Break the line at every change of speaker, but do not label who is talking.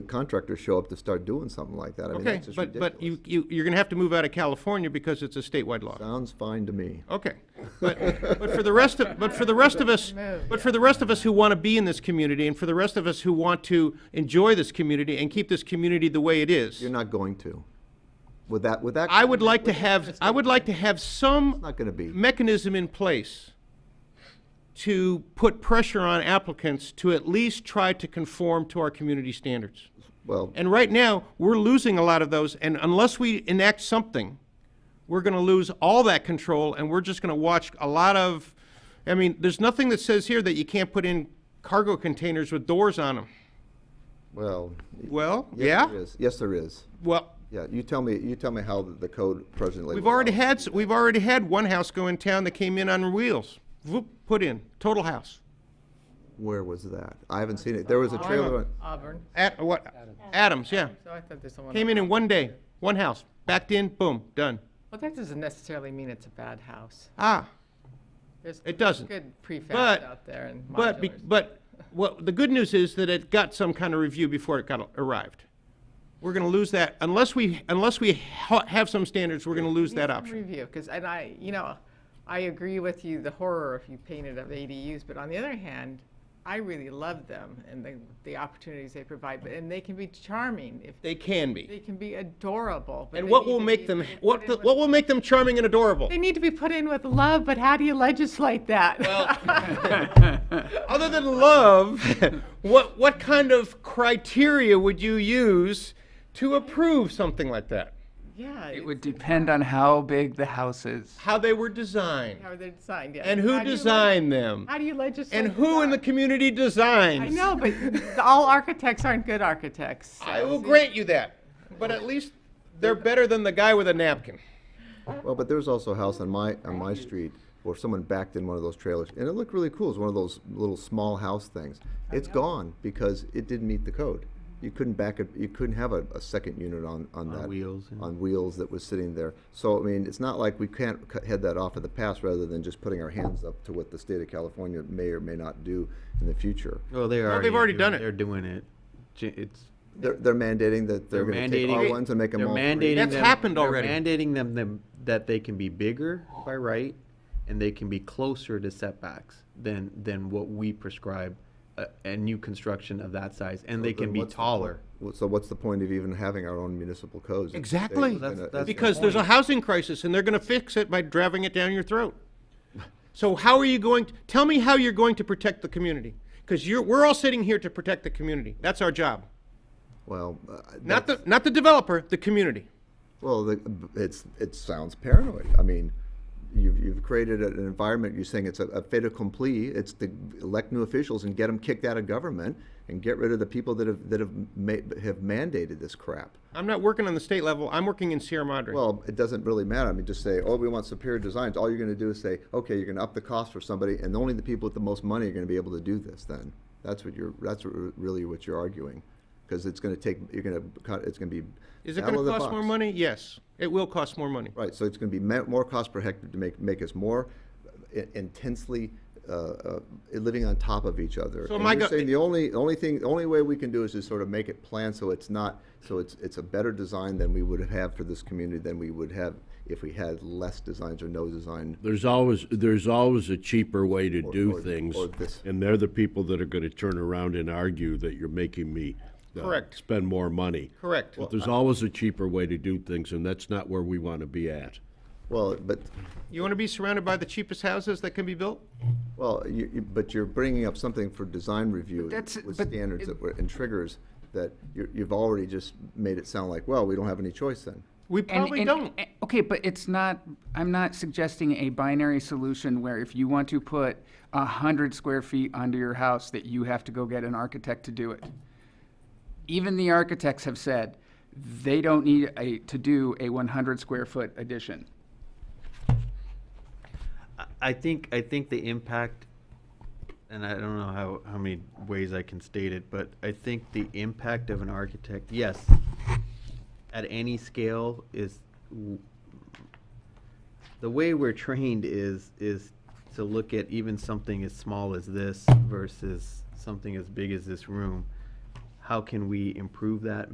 contractors show up to start doing something like that. I mean,
Okay,
that's just
but, but you,
ridiculous.
you, you're gonna have to move out of California because it's a statewide law.
Sounds fine to me.
Okay, but, but for the rest of, but for the rest of us, but for the rest of us who want to be in this community, and for the rest of us who want to enjoy this community and keep this community the way it is,
You're not going to. With that, with that.
I would like to have, I would like to have
It's
some
not gonna be.
mechanism in place to put pressure on applicants to at least try to conform to our community standards.
Well,
And right now, we're losing a lot of those, and unless we enact something, we're gonna lose all that control, and we're just gonna watch a lot of, I mean, there's nothing that says here that you can't put in cargo containers with doors on them.
well.
Well,
yes,
yeah,
there is. Yes, there is.
well,
Yeah, you tell me, you tell me how the- the code presently.
we've already had, s- we've already had one house go in town that came in on wheels. Whoop, put in, total house.
Where was that? I haven't seen it. There was a trailer. on-
Oh, Auburn,
At, what, Adams, yeah.
so I thought there's someone.
Came in in one day, one house, backed in, boom, done.
Well, that doesn't necessarily mean it's a bad house.
Ah,
There's
it doesn't.
good
But-
prefabs out there and
But, be-
modulars.
but, what, the good news is that it got some kind of review before it got, arrived. We're gonna lose that, unless we, unless we ha- have some standards, we're gonna lose that
Needs some
option.
Review, because, and I, you know, I agree with you, the horror if you painted of ADUs, but on the other hand, I really love them and the, the opportunities they provide, but, and they can be charming if,
They can
they
be.
can be adorable. but
And
they
what
need
will
to
make
be
them,
put
what,
in
the-
with-
what will make them charming and adorable?
They need to be put in with love, but how do you legislate that?
Other than love, what, what kind of criteria would you use to approve something like that?
Yeah.
It
it's
would depend on how big the house is.
How they were designed,
How they're designed, yeah.
and
How
who
do you leg-
designed them,
How do you legislate?
and who in the
design?
community designs?
I know, but all architects aren't good architects.
I will grant you that, but at least they're better than the guy with a napkin.
Well, but there's also a house on my, on my street where someone backed in one of those trailers, and it looked really cool. It's one of those little small house things. It's gone because it didn't meet the code. You couldn't back it, you couldn't have a, a second unit on, on that.
wheels, yeah.
On wheels that was sitting there. So, I mean, it's not like we can't cut- head that off in the past rather than just putting our hands up to what the state of California may or may not do in the future.
Well, they are.
they've already done it.
They're doing it. J- It's.
They're, they're mandating that they're gonna take
mandating-
R ones and make them
they're
all
mandating
three.
That's
them-
happened
they're
already.
Mandating them, them that they can be bigger by right, and they can be closer to setbacks than than what we prescribe a, a new construction of that size, and they
Then
can be
what's the
taller.
point- So what's the point of even having our own municipal codes? uh, if the state
Exactly.
is
That's-
gonna-
that's-
is
Because there's a housing crisis, and they're gonna fix it by driving it down your throat. So how are you going, to tell me how you're going to protect the community? Because you're, we're all sitting here to protect the community. That's our job.
Well, uh,
Not
that's-
the, not the developer, the community.
well, the, it's it sounds paranoid. I mean, you've you've created an environment. You're saying it's a, a fait accompli. It's to elect new officials and get them kicked out of government and get rid of the people that have that have ma- have mandated this crap.
I'm not working on the state level, I'm working in Sierra Madre.
Well, it doesn't really matter. I mean, just say, oh, we want superior designs. All you're going to do is say, okay, you're going to up the cost for somebody, and only the people with the most money are going to be able to do this. Then that's what you're. That's what re- really what you're arguing, because it's going to take. You're going to cut. It's going to be.
Is it
battle
gonna
of the
cost more
box.
money? Yes, it will cost more money.
Right, so it's going to be ma- more cost per hectare to make make us more i- intensely. Uh, uh, living on top of each other.
So
and
am I
you're
go-
uh,
saying the only the only thing the only way we can do is just sort of make it plan so it's not so it's it's a better design than we would have for this community than we would have if we had less designs or no design.
There's always, there's always a cheaper way to
or-
do things,
or this.
and they're the people that are gonna turn around and argue that you're making me uh,
Correct.
spend more money.
Correct.
But there's always a cheaper way to do things, and that's not where we wanna be at.
Well, but
You wanna be surrounded by the cheapest houses that can be built?
well, you, you, but you're bringing up something for design review
that's-
with
but
standards
it-
that were and triggers that you you've already just made it sound like well we don't have any choice then.
We
And-
probably
and-
don't.
and- Okay, but it's not, I'm not suggesting a binary solution where if you want to put a hundred square feet onto your house, that you have to go get an architect to do it. Even the architects have said they don't need a, to do a one hundred square foot addition.
I- I think I think the impact, and I don't know how, how many ways I can state it, but I think the impact of an architect, yes, at any scale is w- the way we're trained is is to look at even something as small as this versus something as big as this room. how can we improve that,